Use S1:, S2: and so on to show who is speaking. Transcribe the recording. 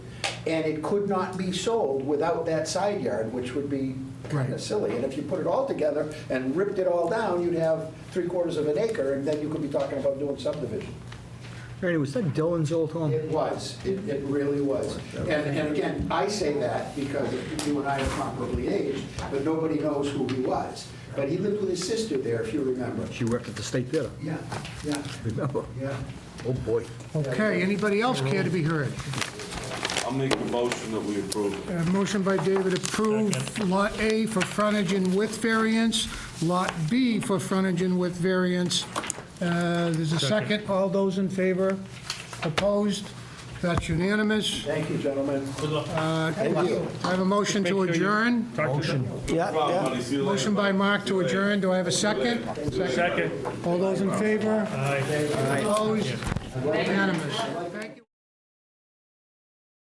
S1: and it could not be sold without that side yard, which would be kind
S2: Right.
S1: of silly. And if you put it all together and ripped it all down, you'd have three quarters of an acre, and then you could be talking about doing subdivision.
S2: Ernie, was that Dylan's old home?
S1: It was, it, it really was. And, and again, I say that because you and I are comparably aged, but nobody knows who he was. But he lived with his sister there, if you remember.
S2: She worked at the State Theater,
S1: Yeah, yeah,
S2: remember?
S1: yeah.
S2: Oh, boy.
S3: Okay, anybody else care to be heard?
S4: I'll make a motion that we approve.
S3: Uh, Motion by David, approve Lot A for frontage and width variance, Lot B for frontage and width variance. Uh, There's a second, all those in favor? Opposed? That's unanimous.
S1: Thank you, gentlemen.
S3: Uh,
S1: Thank you.
S3: I have a motion to adjourn.
S5: Motion.
S3: Motion by Mark to adjourn, do I have a second?
S5: Second.
S3: All those in favor?
S5: Aye.
S3: Opposed? Unanimous.